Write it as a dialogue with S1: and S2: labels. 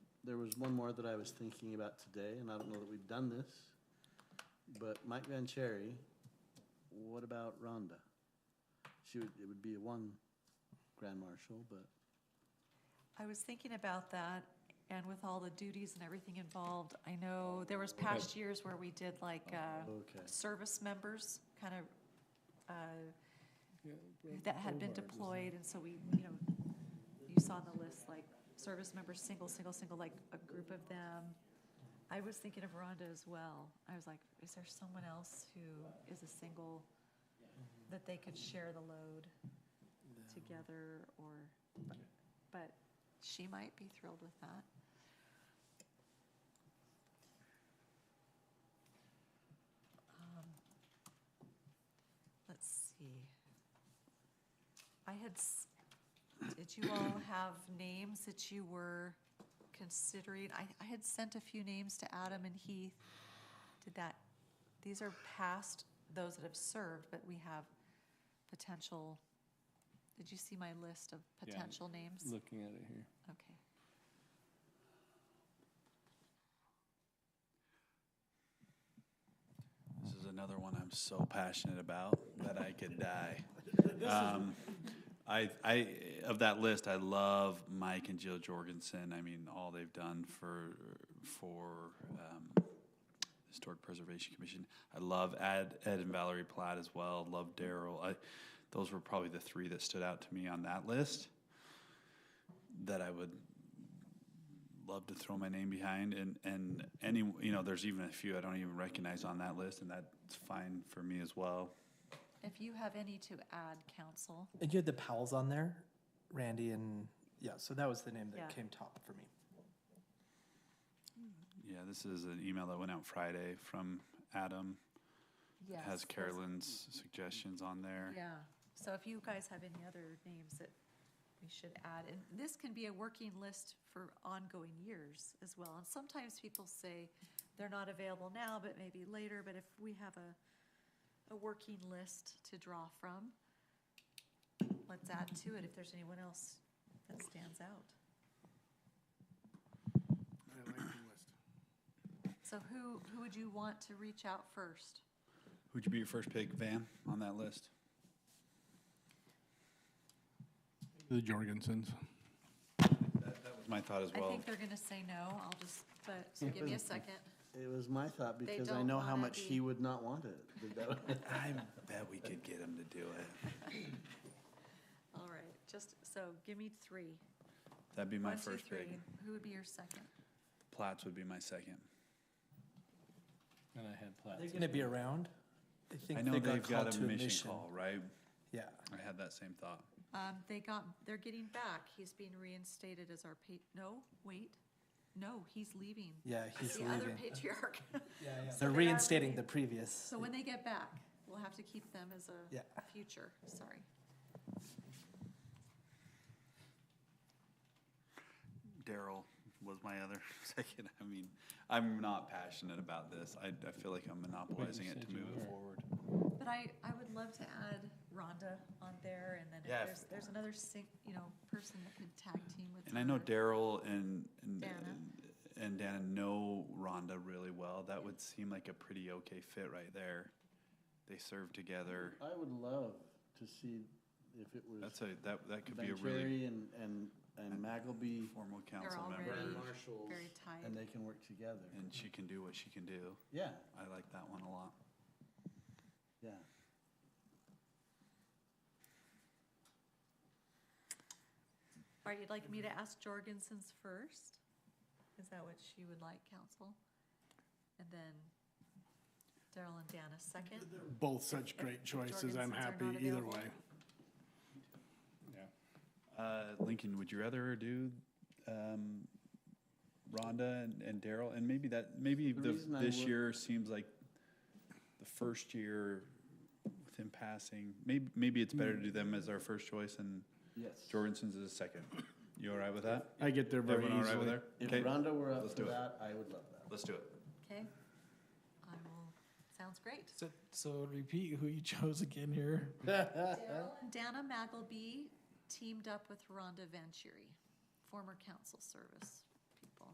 S1: there was one more that I was thinking about today, and I don't know that we've done this, but Mike Van Cherry, what about Rhonda? She would, it would be one grand marshal, but
S2: I was thinking about that, and with all the duties and everything involved, I know there was past years where we did like, uh,
S1: Okay.
S2: service members, kind of, uh, that had been deployed, and so we, you know, you saw on the list, like, service members, single, single, single, like, a group of them. I was thinking of Rhonda as well. I was like, is there someone else who is a single, that they could share the load together, or, but- but she might be thrilled with that. Um, Let's see. I had, s- did you all have names that you were considering? I, I had sent a few names to Adam and Heath. Did that, these are past those that have served, but we have potential. Did you see my list of
S3: Yeah,
S2: potential names?
S3: Looking at it here.
S2: Okay.
S4: This is another one I'm so passionate about that I could die. Um, I, I, of that list, I love Mike and Jill Jorgensen. I mean, all they've done for, for, um, Historic Preservation Commission. I love Ed, Ed and Valerie Platt as well. Love Daryl. I, those were probably the three that stood out to me on that list that I would love to throw my name behind and and any you know there's even a few I don't even recognize on that list and that's fine for me as well.
S2: If you have any to add, council,
S5: And you had the Powells on there, Randy and, yeah, so that was the name
S2: Yeah.
S5: that came top for me.
S4: Yeah, this is an email that went out Friday from Adam. It
S2: yes.
S4: has
S2: those-
S4: Carolyn's suggestions on there.
S2: Yeah, so if you guys have any other names that we should add, and this can be a working list for ongoing years as well. And sometimes people say they're not available now, but maybe later, but if we have a, a working list to draw from, let's add to it if there's anyone else that stands out. So who, who would you want to reach out first?
S4: Who'd you be your first pick, Van, on that list?
S6: The Jorgensens.
S4: That, that was my thought as
S2: I
S4: well.
S2: think they're gonna say no, I'll just, but, so give me a second.
S1: it was my thought
S2: They
S1: because I
S2: don't
S1: know how
S2: wanna
S1: much
S2: be-
S1: he would not want it. That would-
S4: I bet we could get him to do it.
S2: All right, just, so give me three.
S4: That'd be my
S2: One, two,
S4: first pick.
S2: three. Who would be your second?
S4: Platts would be my second.
S3: And I had
S5: Are
S3: Platts.
S5: they gonna be around? I think
S4: I know
S5: they
S4: they've got
S5: called
S4: a
S5: to
S4: mission call, right?
S5: Yeah,
S4: I had that same thought.
S2: Um, they got, they're getting back, he's being reinstated as our pa, no, wait, no, he's leaving.
S5: yeah, he's
S2: The other
S5: leaving.
S2: patriarch.
S5: Yeah, yeah.
S2: So
S5: They're
S2: they are
S5: reinstating the
S2: leaving.
S5: previous.
S2: So when they get back, we'll have to keep them as
S5: Yeah.
S2: a future, sorry.
S4: Daryl was my other second. I mean, I'm not passionate about this. I, I feel like I'm monopolizing it
S3: said
S4: to
S3: you
S4: move it
S3: were.
S4: forward.
S2: But I, I would love to add Rhonda on there, and then if
S4: Yeah, if-
S2: there's, there's another sing, you know, person that could tag team with.
S4: And I know
S2: her.
S4: Daryl and, and,
S2: Dana.
S4: and Dana know Rhonda really well. That would seem like a pretty okay fit right there. They serve together.
S1: I would love to see if it was
S4: That's a, that, that could be a
S1: Van
S4: really
S1: Cherry and, and, and McAbey
S4: formal
S2: They're
S4: council member.
S2: already
S1: grand marshals.
S2: very tight.
S1: And they can work together.
S4: And she can do what she can do.
S1: Yeah,
S4: I like that one a lot.
S1: yeah.
S2: All right, you'd like me to ask Jorgensen's first? Is that what she would like, council? And then Daryl and Dana second?
S6: Both such great choices. I'm
S2: Jorgensen's are
S6: happy
S2: not
S6: either
S2: available.
S6: way.
S3: Yeah.
S4: Uh, Lincoln, would you rather do, um, Rhonda and, and Daryl, and maybe that, maybe
S1: The
S4: the,
S1: reason I
S4: this
S1: would-
S4: year seems like the first year with him passing, maybe, maybe it's better to do them as our first choice and
S1: Yes.
S4: Jorgensen's as a second. You all right with that?
S6: I get there very
S4: Everyone all right with
S6: easily.
S4: there?
S1: If
S4: Okay,
S1: Rhonda were up
S4: let's
S1: for
S4: do it.
S1: that, I would love that.
S4: let's do it.
S2: Okay. I will, sounds great.
S7: So, so repeat who you chose again here.
S2: Daryl and Dana Magleby teamed up with Rhonda Vanchery, former council service.